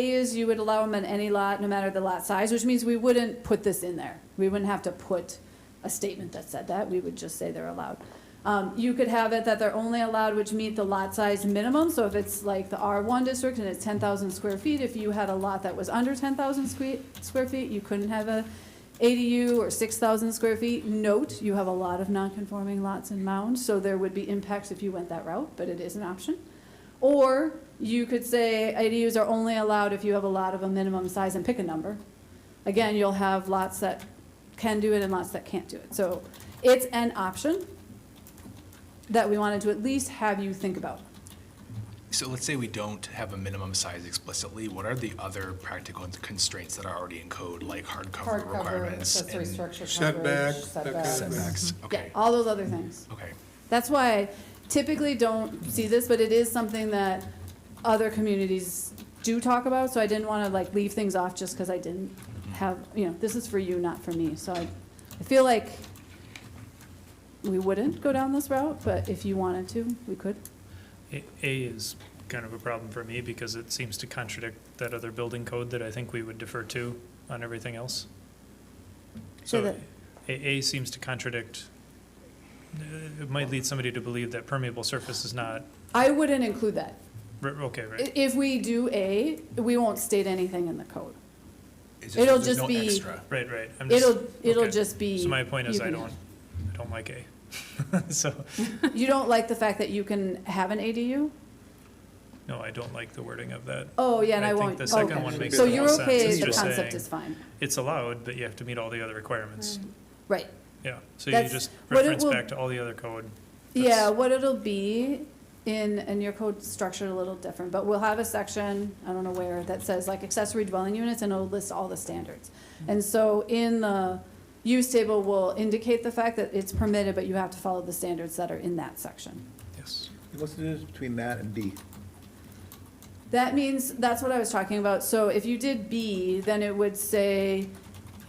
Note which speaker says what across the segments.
Speaker 1: is you would allow them on any lot, no matter the lot size, which means we wouldn't put this in there. We wouldn't have to put a statement that said that, we would just say they're allowed. Um, you could have it that they're only allowed which meet the lot size minimum, so if it's like the R one district and it's ten thousand square feet, if you had a lot that was under ten thousand square, square feet, you couldn't have a ADU or six thousand square feet. Note, you have a lot of non-conforming lots in Mound, so there would be impacts if you went that route, but it is an option. Or you could say ADUs are only allowed if you have a lot of a minimum size and pick a number. Again, you'll have lots that can do it and lots that can't do it. So it's an option that we wanted to at least have you think about.
Speaker 2: So let's say we don't have a minimum size explicitly, what are the other practical constraints that are already in code, like hardcover
Speaker 3: Hardcover,
Speaker 2: requirements?
Speaker 3: accessory
Speaker 2: and
Speaker 3: structure
Speaker 4: Setback,
Speaker 3: coverage,
Speaker 4: that kind of
Speaker 3: setbacks.
Speaker 4: thing.
Speaker 2: Setbacks,
Speaker 1: Yeah,
Speaker 2: okay,
Speaker 1: all those other things.
Speaker 2: okay.
Speaker 1: That's why I typically don't see this, but it is something that other communities do talk about, so I didn't want to like leave things off just because I didn't have, you know, this is for you, not for me. So I, I feel like we wouldn't go down this route, but if you wanted to, we could.
Speaker 5: A A is kind of a problem for me because it seems to contradict that other building code that I think we would defer to on everything else.
Speaker 1: So
Speaker 5: So
Speaker 1: that-
Speaker 5: A, A seems to contradict, uh, it might lead somebody to believe that permeable surface is not,
Speaker 1: I wouldn't include that.
Speaker 5: r- okay, right?
Speaker 1: I- If we do A, we won't state anything in the code.
Speaker 2: It's
Speaker 1: It'll
Speaker 2: there's
Speaker 1: just
Speaker 2: no
Speaker 1: be-
Speaker 2: extra.
Speaker 5: Right, right. I'm just-
Speaker 1: It'll, it'll
Speaker 5: okay.
Speaker 1: just be.
Speaker 5: So my point is
Speaker 1: you
Speaker 5: I
Speaker 1: can-
Speaker 5: don't, I don't like A. So,
Speaker 1: You don't like the fact that you can have an ADU?
Speaker 5: no, I don't like the wording of that.
Speaker 1: Oh, yeah, and
Speaker 5: I
Speaker 1: I
Speaker 5: think
Speaker 1: won't.
Speaker 5: the second
Speaker 1: okay.
Speaker 4: one makes
Speaker 1: So
Speaker 4: the
Speaker 1: you're
Speaker 4: most
Speaker 5: sense.
Speaker 1: okay,
Speaker 5: It's
Speaker 1: the
Speaker 5: just
Speaker 1: concept
Speaker 5: saying-
Speaker 1: is Mm. fine.
Speaker 5: It's allowed, but you have to meet all the other requirements.
Speaker 1: Right.
Speaker 5: Yeah, so you
Speaker 1: That's-
Speaker 5: just
Speaker 1: what it
Speaker 5: reference
Speaker 1: will-
Speaker 5: back to all the other code.
Speaker 1: Yeah,
Speaker 5: That's-
Speaker 1: what it'll be in, and your code's structured a little different, but we'll have a section, I don't know where, that says like accessory dwelling units and it'll list all the standards. And so in the use table will indicate the fact that it's permitted, but you have to follow the standards that are in that section.
Speaker 5: Yes.
Speaker 4: What's the difference between that and B?
Speaker 1: That means, that's what I was talking about, so if you did B, then it would say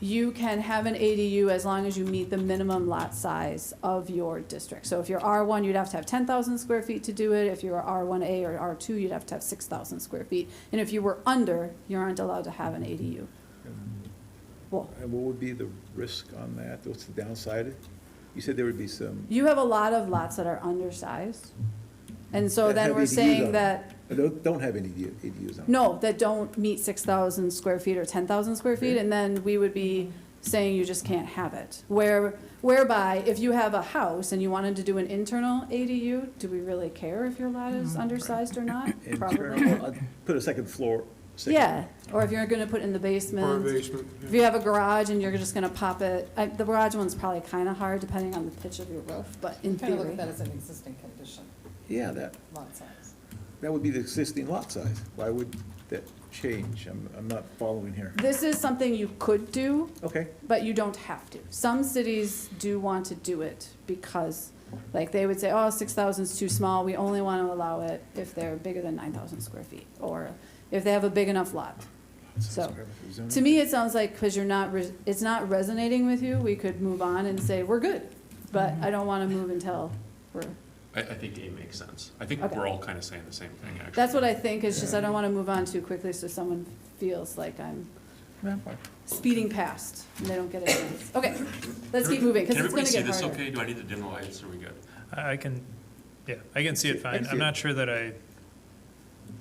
Speaker 1: you can have an ADU as long as you meet the minimum lot size of your district. So if you're R one, you'd have to have ten thousand square feet to do it, if you were R one A or R two, you'd have to have six thousand square feet. And if you were under, you aren't allowed to have an ADU. Well,
Speaker 4: And what would be the risk on that? What's the downside? You said there would be some,
Speaker 1: you have a lot of lots that are undersized, and so
Speaker 4: That
Speaker 1: then
Speaker 4: have
Speaker 1: we're
Speaker 4: ADUs on
Speaker 1: saying
Speaker 4: it.
Speaker 1: that.
Speaker 4: I don't don't have any ADU- ADUs on it.
Speaker 1: No, that don't meet six thousand square feet or ten thousand square feet, and then we would be saying you just can't have it. Where, whereby, if you have a house and you wanted to do an internal ADU, do we really care if your lot
Speaker 6: Mm-hmm.
Speaker 1: is undersized or not? Probably.
Speaker 4: Internal, I'd uh, Put a second floor. second-
Speaker 1: Yeah, or if you're gonna put it in the
Speaker 6: Or a
Speaker 1: basement,
Speaker 6: basement.
Speaker 1: if
Speaker 6: yeah.
Speaker 1: you have a garage and you're just gonna pop it, I, the garage one's probably kinda hard, depending on the pitch of your roof, but in
Speaker 3: Kind of look
Speaker 1: theory.
Speaker 3: at that as an existing condition,
Speaker 4: Yeah, that,
Speaker 3: lot size.
Speaker 4: that would be the existing lot size. Why would that change? I'm, I'm not following here.
Speaker 1: This is something you could do,
Speaker 4: Okay,
Speaker 1: But you don't have to. Some cities do want to do it because, like, they would say, oh, six thousand's too small, we only want to allow it if they're bigger than nine thousand square feet, or if they have a big enough lot. So, to me, it sounds like, because you're not, res- it's not resonating with you, we could move on and say, we're good. But I don't want to move until we're,
Speaker 7: I, I think A makes sense. I think
Speaker 1: Okay.
Speaker 7: we're all kind of saying the same thing, actually.
Speaker 1: that's what I think, it's just I don't want to move on too quickly so someone feels like I'm speeding past and they don't get a chance. Okay, let's keep moving, because it's going to get harder.
Speaker 7: Can everybody see this okay? Do I need to dim the lights? Are we good?
Speaker 5: I I can, yeah, I can see it
Speaker 4: I can
Speaker 5: fine.
Speaker 4: see
Speaker 5: I'm
Speaker 4: it.
Speaker 5: not sure that I,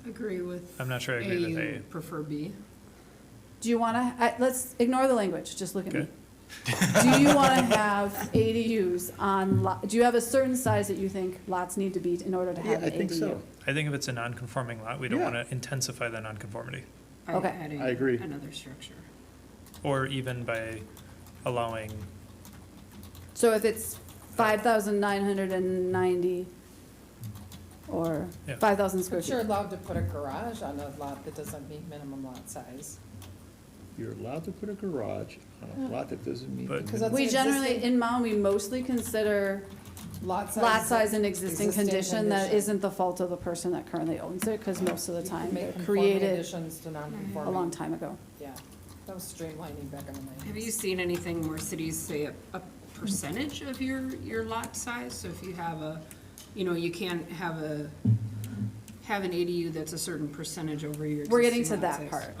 Speaker 8: Agree with.
Speaker 5: I'm not sure I agree with A.
Speaker 8: and Prefer B.
Speaker 1: Do you want to, let's ignore the language, just look at me.
Speaker 5: Okay.
Speaker 1: Do you want to have ADUs on, lo- do you have a certain size that you think lots need to be in order to
Speaker 4: yeah,
Speaker 1: have
Speaker 4: I
Speaker 1: an
Speaker 4: think
Speaker 1: ADU?
Speaker 4: so.
Speaker 5: I think if it's a non-conforming lot, we don't
Speaker 4: Yeah.
Speaker 5: want to intensify the non-conformity.
Speaker 8: by
Speaker 1: Okay.
Speaker 8: adding
Speaker 4: I agree.
Speaker 8: Another structure.
Speaker 5: Or even by allowing,
Speaker 1: So if it's five thousand nine hundred and ninety or
Speaker 5: Yeah.
Speaker 1: five thousand square
Speaker 3: But you're
Speaker 1: feet?
Speaker 3: allowed to put a garage on a lot that doesn't meet minimum lot size.
Speaker 4: You're allowed to put a garage on a lot that doesn't meet.
Speaker 5: But-
Speaker 4: the
Speaker 3: Because that's
Speaker 1: We
Speaker 3: an
Speaker 1: generally,
Speaker 3: existing
Speaker 1: in Mound, we mostly consider
Speaker 3: Lot size.
Speaker 1: lot size an existing
Speaker 3: Existing
Speaker 1: condition that
Speaker 3: condition.
Speaker 1: isn't the fault of the person that currently owns it, because most of the
Speaker 3: You
Speaker 1: time
Speaker 3: can make
Speaker 1: they're
Speaker 3: conforming
Speaker 1: created
Speaker 3: Additions to
Speaker 1: a long
Speaker 3: non-conforming,
Speaker 1: time ago.
Speaker 3: yeah. That was streamlining back in the nineties.
Speaker 8: Have you seen anything where cities say a, a percentage of your, your lot size? So if you have a, you know, you can't have a, have an ADU that's a certain percentage over your
Speaker 1: We're getting
Speaker 8: existing
Speaker 1: to
Speaker 8: lot
Speaker 1: that
Speaker 8: size.
Speaker 1: part.